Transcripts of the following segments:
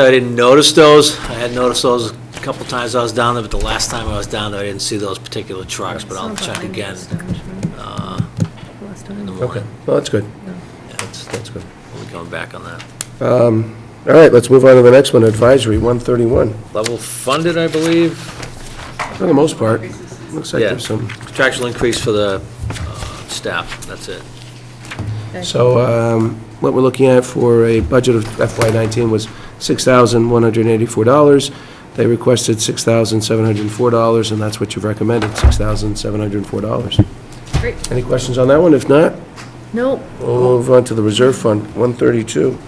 I didn't notice those. I had noticed those a couple times I was down there, but the last time I was down there, I didn't see those particular trucks, but I'll check again uh, in the Okay, morning. well, that's good, Yeah, that's, that's good. We'll be coming back on that. Um, All right, let's move on to the next one, advisory, 131. Level funded, I believe, For the most part, looks like Yeah. there's some, contractual increase for the uh, staff, that's it. so um, what we're looking at for a budget of FY19 was $6,184. They requested $6,704, and that's what you've recommended, $6,704. Great. Any questions on that one? If not, Nope. we'll move on to the reserve fund, 132.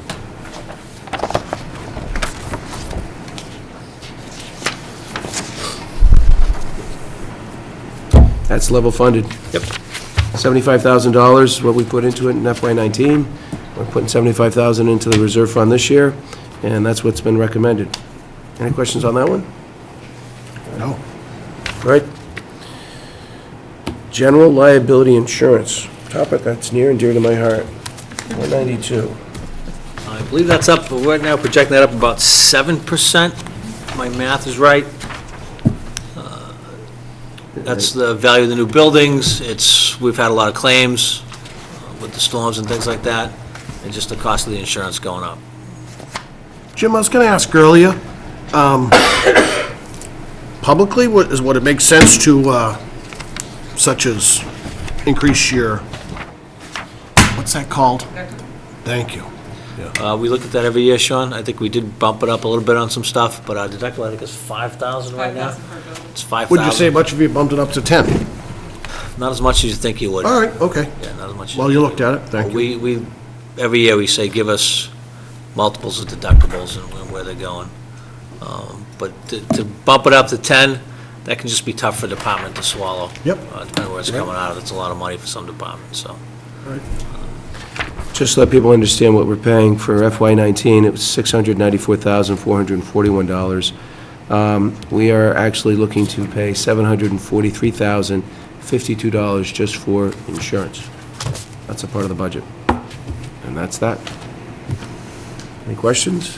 That's level funded. Yep. $75,000 is what we put into it in FY19. We're putting $75,000 into the reserve fund this year, and that's what's been recommended. Any questions on that one? No. All right. General liability insurance, topic that's near and dear to my heart, 192. I believe that's up, but right now projecting that up about 7%, if my math is right. Uh, That's the value of the new buildings, it's, we've had a lot of claims uh, with the storms and things like that, and just the cost of the insurance going up. Jim, I was going to ask earlier, um, publicly, what is, would it make sense to, uh, such as increase your, what's that called? Thank you. Uh, We look at that every year, Sean, I think we did bump it up a little bit on some stuff, but our deductible, I think, is 5,000 right now. It's 5,000. Would you say much if you bumped it up to 10? Not as much as you think you would. All right, okay. Yeah, not as much. as Well, you looked at it, thank you. We, we, every year we say, give us multiples of deductibles and where- where they're going. Um, But to to bump it up to 10, that can just be tough for a department to swallow. Yep. Uh, Depending where it's coming out of, it's a lot of money for some departments, so. Just to let people understand what we're paying for FY19, it was $694,441. Um, We are actually looking to pay $743,052 just for insurance. That's a part of the budget. And that's that. Any questions?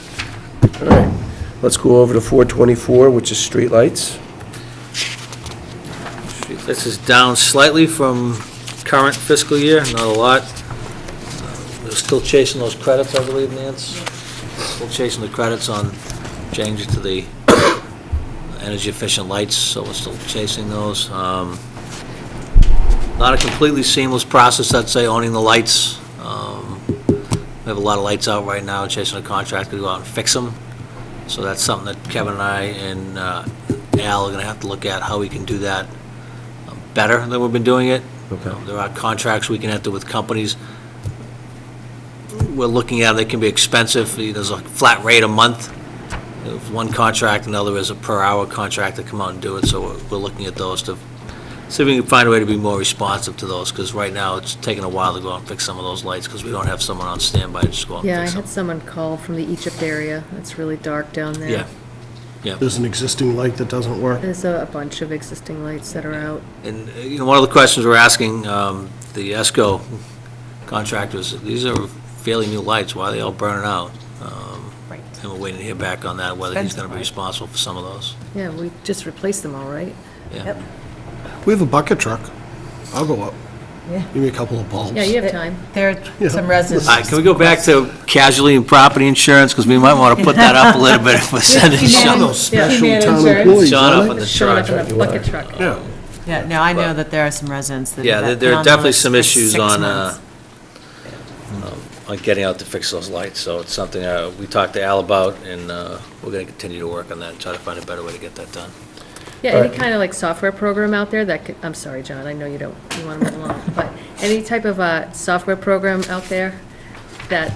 All right, let's go over to 424, which is streetlights. This is down slightly from current fiscal year, not a lot. Uh, We're still chasing those credits, I believe, Nance? Still chasing the credits on changes to the energy efficient lights, so we're still chasing those. Um, Not a completely seamless process, I'd say, owning the lights. Um, We have a lot of lights out right now, chasing a contractor to go out and fix them. So that's something that Kevin and I and uh, Al are gonna have to look at, how we can do that better than we've been doing it. Okay. Um, There are contracts we can enter with companies. We're looking at, they can be expensive, there's a flat rate a month, If one contract, another is a per-hour contract to come out and do it, so we're- we're looking at those to, see if we can find a way to be more responsive to those, because right now, it's taking a while to go out and fix some of those lights, because we don't have someone on standby to just go out and Yeah, I fix them. had someone call from the Egypt area. It's really dark down there. Yeah. There's an existing light that doesn't work. There's a a bunch of existing lights that are out. And, uh, you know, one of the questions we're asking um, the ESCO contractors, these are fairly new lights, why are they all burning out? Um, Right. And we're waiting to hear back on that, whether he's going to be responsible for some of those. Yeah, we just replaced them all, right? Yeah. We have a bucket truck. I'll go up. Give me a couple of bulbs. Yeah, you have time. There are some All right, residents. can we go back to casualty and property insurance, because we might want to put that up a little bit if we're sending Some of Sean those special Yeah. town Insurance. employees, Sean up aren't on the Showing charge. up in a bucket truck. they? Yeah. Yeah, no, I know that there are some residents that. Yeah, have there- been there are on the definitely list some for issues six on, uh, months. on getting out to fix those lights, so it's something uh, we talked to Al about, and uh, we're going to continue to work on that and try to find a better way to get that done. Yeah, All any right. kind of like software program out there that could, I'm sorry, John, I know you don't, you want to move along, but any type of a software program out there that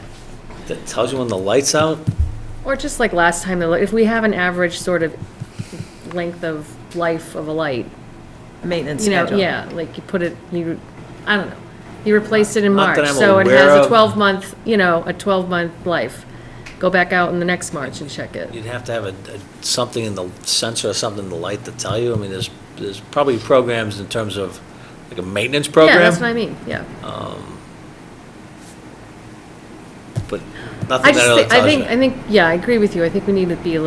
That tells you when the light's out? Or just like last time, the li- if we have an average sort of length of life of a light, Maintenance you know, schedule. yeah, like you put it, you, I don't know, you replaced it in Not that March, I'm so it aware has of. a twelve-month, you know, a twelve-month life. Go back out in the next March and check it. You'd have to have a, a- something in the sensor or something in the light to tell you. I mean, there's, there's probably programs in terms of, like a maintenance Yeah, that's program, what I mean, yeah. but nothing I just, that really thi- I tells you. think, I think, yeah, I agree with you. I think we need to be a little